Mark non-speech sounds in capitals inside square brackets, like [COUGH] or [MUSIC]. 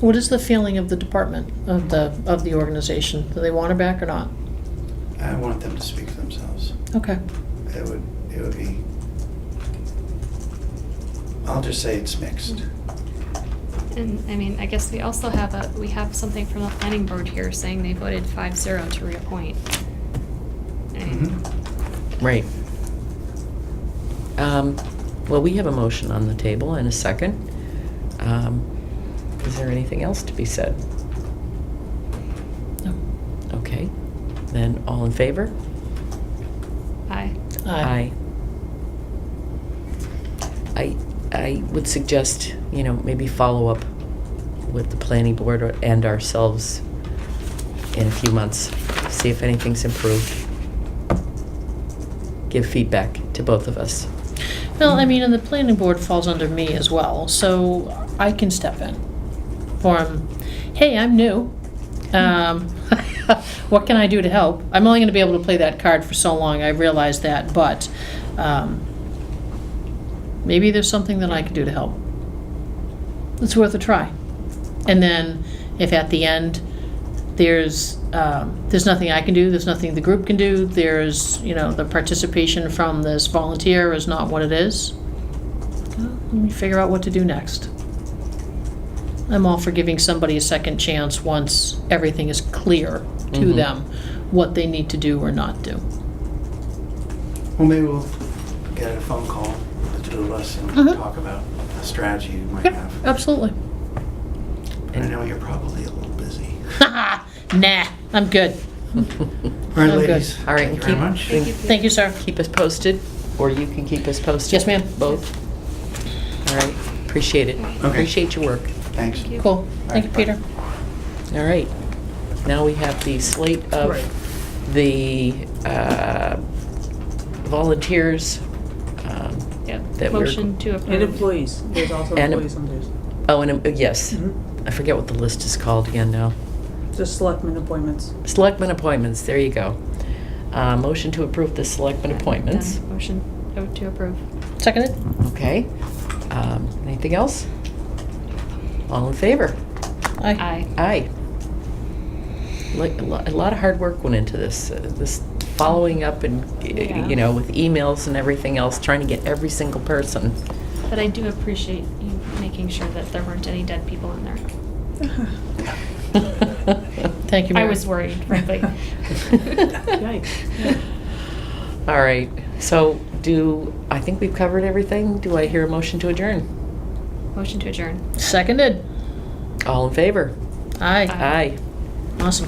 What is the feeling of the department, of the, of the organization? Do they want her back or not? I want them to speak for themselves. Okay, It would, it would be, I'll just say it's mixed. And, I mean, I guess we also have a, we have something from the planning board here saying they voted five zero to reappoint. I Mm-hmm. mean, Mhm. Right. Um, Well, we have a motion on the table and a second. Um, Is there anything else to be said? No. Okay, then all in favor? Mm-hmm. Aye. aye. I, I would suggest, you know, maybe follow up with the planning board or- and ourselves in a few months, see if anything's improved. Give feedback to both of us. Well, I mean, and the planning board falls under me as well, so I can step in for 'em. Hey, I'm new. Um, [LAUGHS] what can I do to help? I'm only gonna be able to play that card for so long, I realize that, but, um, maybe there's something that I can do to help. It's worth a try. And then if at the end, there's, um, there's nothing I can do, there's nothing the group can do, there's, you know, the participation from this volunteer is not what it is, well, let me figure out what to do next. I'm all for giving somebody a second chance once everything is clear to Mhm. them, what they need to do or not do. Well, maybe we'll get a phone call, the two of us, and Mhm. talk about a strategy you might Yeah, have. absolutely. [LAUGHS] I know you're probably a little busy. Nah, I'm good. [LAUGHS] All right, I'm good. ladies. All Thank right, you and very keep- much. and Thank you, sir. keep us posted, or you can keep us posted. Yes, ma'am. Both. All right, appreciate it. Okay. Appreciate your work. Thanks. Thank you. Cool. Thank you, Peter. All right. Now we have the slate of Right. the uh, volunteers. um, Yep, That we're- motion to approve. And employees, there's also And- employees on theirs. Oh, and, um, yes, Mm-hmm. Mhm. I forget what the list is called again now. Just selectmen appointments. Selectmen appointments, there you go. Uh, Motion to approve the selectmen Yeah, appointments. done. Motion to- to approve. Seconded? Okay. Um, Anything else? All in favor? Aye. Aye. Aye. Like, a lo- a lot of hard work went into this, uh, this following up and, uh, Yeah. you know, with emails and everything else, trying to get every single [LAUGHS] person. But I do appreciate you making sure that there weren't any dead people in there. Thank you, I Mary. [LAUGHS] was worried, [LAUGHS] frankly. [LAUGHS] Yikes. All right, so do, I think we've covered everything. Do I hear a motion to adjourn? Motion to adjourn. Seconded? All in favor? Aye. Aye. Aye. Awesome.